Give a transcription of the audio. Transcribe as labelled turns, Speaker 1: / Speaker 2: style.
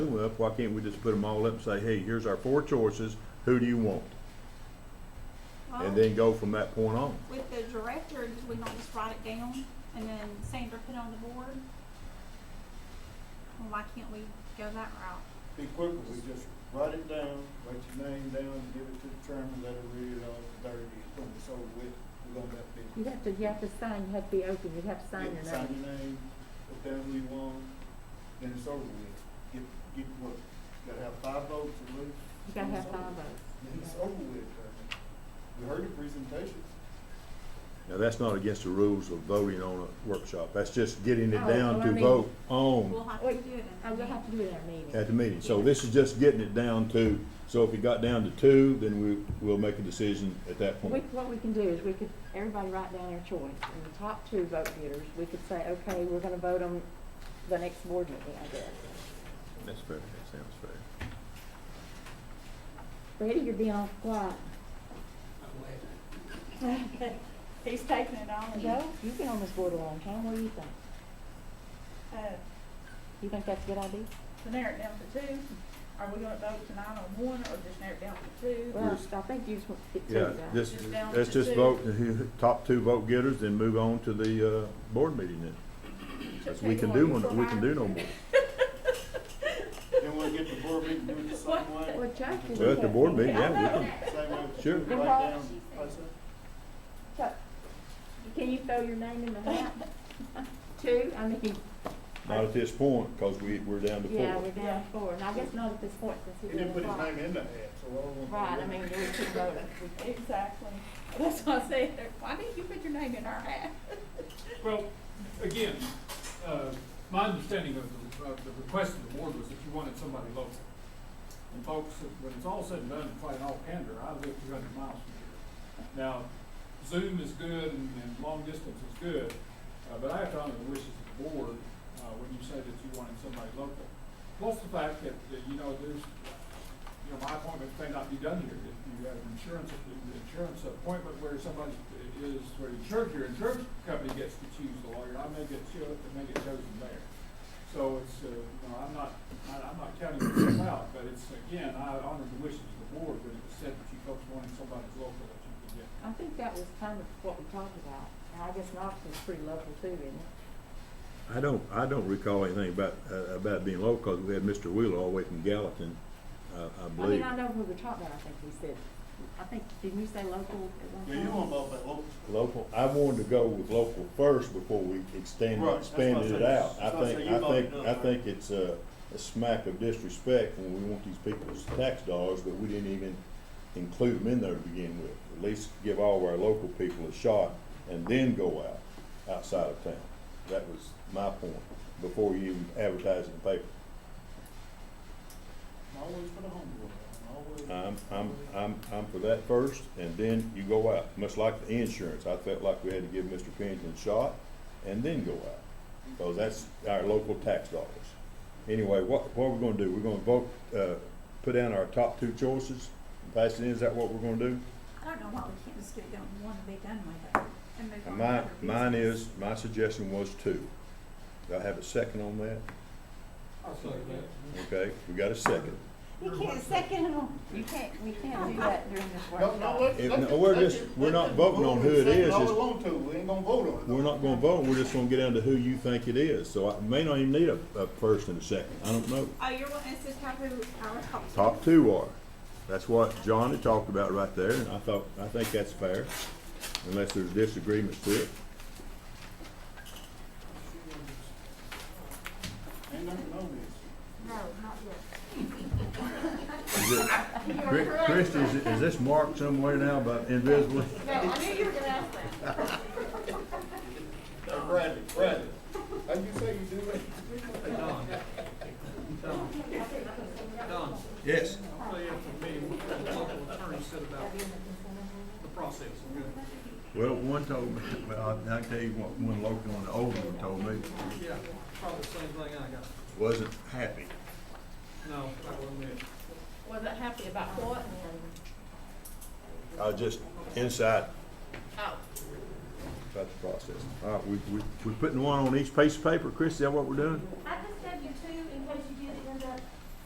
Speaker 1: them up, why can't we just put them all up and say, hey, here's our four choices, who do you want?
Speaker 2: Well,
Speaker 1: And then go from that point on.
Speaker 2: Oh. With the director, did we not just write it down and then Sandra put it on the board? Well, why can't we go that route?
Speaker 3: Be quicker, we just write it down, write your name down, give it to the chairman, let her read it off, there it is, boom, it's over with, we're gonna have to.
Speaker 4: You have to, you have to sign, you have to be open, you have to sign your
Speaker 3: Sign
Speaker 4: name.
Speaker 3: your name, put down who you want, then it's over with, get, get to work. You gotta have five votes at least.
Speaker 4: You gotta
Speaker 3: then
Speaker 4: have
Speaker 3: it's over
Speaker 4: five
Speaker 3: with. Then it's
Speaker 4: votes.
Speaker 3: over with, chairman. We heard your presentation.
Speaker 1: Now, that's not against the rules of voting on a workshop, that's just getting it
Speaker 4: Oh,
Speaker 1: down
Speaker 4: well, I
Speaker 1: to
Speaker 4: mean-
Speaker 1: vote
Speaker 2: We'll
Speaker 1: on
Speaker 2: have to
Speaker 4: Wait,
Speaker 2: do it.
Speaker 4: I will Oh, have to do it at a meeting.
Speaker 1: at the meeting. So this is just getting it down to, so if it got down to two, then we, we'll make a decision at that
Speaker 4: We,
Speaker 1: point.
Speaker 4: what we can do is we could, everybody write down their choice, and the top two vote getters, we could say, okay, we're gonna vote on the next board meeting, I guess.
Speaker 1: That's fair, that sounds fair.
Speaker 4: Brady, you're being all quiet.
Speaker 2: He's taking it on.
Speaker 4: Joe, you've been on this board a long time, what do you think?
Speaker 5: Uh,
Speaker 4: You think that's a good idea?
Speaker 5: to narrow it down to two, are we gonna vote tonight on one, or just narrow it down to two?
Speaker 4: Well,
Speaker 1: Bruce.
Speaker 4: I think you just want to get two
Speaker 1: Yeah,
Speaker 4: guys.
Speaker 1: just,
Speaker 5: Just down
Speaker 1: let's
Speaker 5: to
Speaker 1: just
Speaker 5: two.
Speaker 1: vote, the top two vote getters, then move on to the, uh, board meeting then. 'Cause we can do one, we can do no more.
Speaker 3: Then we'll get the board meeting, do it the same way.
Speaker 4: Well, Chuck, you
Speaker 1: Well, at the board meeting, yeah, we can,
Speaker 3: Same way, with the
Speaker 1: Sure.
Speaker 3: write down, place it.
Speaker 4: Chuck, can you throw your name in the hat? Two, I mean,
Speaker 1: not at this point, cause we, we're down to four.
Speaker 4: yeah, we're down four, and I guess not at this point
Speaker 3: He
Speaker 4: since he
Speaker 3: didn't
Speaker 4: didn't
Speaker 3: put his
Speaker 4: apply.
Speaker 3: name in the hat, so I don't want.
Speaker 4: Right, I mean, we two voters.
Speaker 5: Exactly, that's why I said, why didn't you put your name in our hat?
Speaker 6: Well, again, uh, my understanding of the, of the request of the board was that you wanted somebody local. And folks, when it's all said and done, quite in all candor, I live two hundred miles from here. Now, Zoom is good and, and long distance is good, uh, but I have to honor the wishes of the board, uh, when you say that you wanted somebody local. Plus the fact that, that, you know, there's, you know, my appointment may not be done here, if you have an insurance, an insurance appointment where somebody is, where insurance, your insurance company gets to choose the lawyer, I may get cho- I may get chosen there. So it's, uh, you know, I'm not, I, I'm not counting myself out, but it's, again, I honor the wishes of the board, when it was said that you folks wanted somebody local that you could get.
Speaker 4: I think that was kind of what we talked about, and I guess Knoxville's pretty local too, isn't it?
Speaker 1: I don't, I don't recall anything about, uh, about being low, because we had Mr. Wheeler all the way from Gallatin, uh, I
Speaker 4: I mean,
Speaker 1: believe.
Speaker 4: I know when we were talking about, it, I think we said, I think, didn't you say local at one
Speaker 3: Yeah,
Speaker 4: time?
Speaker 3: you want both that local.
Speaker 1: Local, I wanted to go with local first before we extend,
Speaker 3: Right, that's what I
Speaker 1: expanded it
Speaker 3: said.
Speaker 1: out. I
Speaker 3: That's what I
Speaker 1: think,
Speaker 3: said, you
Speaker 1: I think,
Speaker 3: voted
Speaker 1: I
Speaker 3: up.
Speaker 1: think it's a, a smack of disrespect when we want these people's tax dollars, but we didn't even include them in there to begin with. At least give all of our local people a shot and then go out, outside of town. That was my point, before you even advertise in the paper.
Speaker 3: I'm always for the home rule, I'm always.
Speaker 1: I'm, I'm, I'm, I'm for that first, and then you go out, much like the insurance, I felt like we had to give Mr. Pennington a shot, and then go out, because that's our local tax dollars. Anyway, what, what we're gonna do, we're gonna vote, uh, put down our top two choices, and pass it in, is that what we're gonna do?
Speaker 2: I don't know why we can't just get it down to one and be done with it and move
Speaker 1: And
Speaker 2: on to
Speaker 1: my,
Speaker 2: other
Speaker 1: mine
Speaker 2: business.
Speaker 1: is, my suggestion was two. Do I have a second on that?
Speaker 6: I'll
Speaker 1: Okay, we got a second.
Speaker 4: You can't second them, you can't, we can't do that during this
Speaker 3: No, no,
Speaker 4: workshop.
Speaker 3: let,
Speaker 1: If-
Speaker 3: let
Speaker 1: no,
Speaker 3: the-
Speaker 1: we're
Speaker 3: let
Speaker 1: just-
Speaker 3: the-
Speaker 1: we're
Speaker 3: let
Speaker 1: not
Speaker 3: the
Speaker 1: voting on
Speaker 3: board
Speaker 1: who it
Speaker 3: decide
Speaker 1: is,
Speaker 3: All
Speaker 1: it's-
Speaker 3: we want to, we ain't gonna vote on it.
Speaker 1: We're not gonna vote, we're just gonna get down to who you think it is, so I may not even need a, a first and a second, I don't know.
Speaker 2: Oh, you're wanting us to have who our top. two-
Speaker 1: top two are. That's what Johnny talked about right there, and I thought, I think that's fair, unless there's disagreements to it.
Speaker 3: Ain't nothing on this.
Speaker 2: No, not yet.
Speaker 1: Is it- Chris, Chris, is, is this marked somewhere now by invisible?
Speaker 2: No, I knew you were gonna ask that.
Speaker 3: Uh, Bradley, Bradley, how'd you say you do it?
Speaker 7: Don. Don. Don,
Speaker 1: Yes.
Speaker 7: I'll tell you for me, what the local attorney said about the process.
Speaker 1: Well, one told me, well, I, I tell you what, one local on the old one told me,
Speaker 7: Yeah, probably the same thing I got.
Speaker 1: wasn't happy.
Speaker 7: No, I will admit.
Speaker 5: Was it happy about what?
Speaker 1: I was just inside
Speaker 5: Oh,
Speaker 1: about the process. All right, we, we, we putting one on each piece of paper, Chris, is that what we're doing?
Speaker 2: I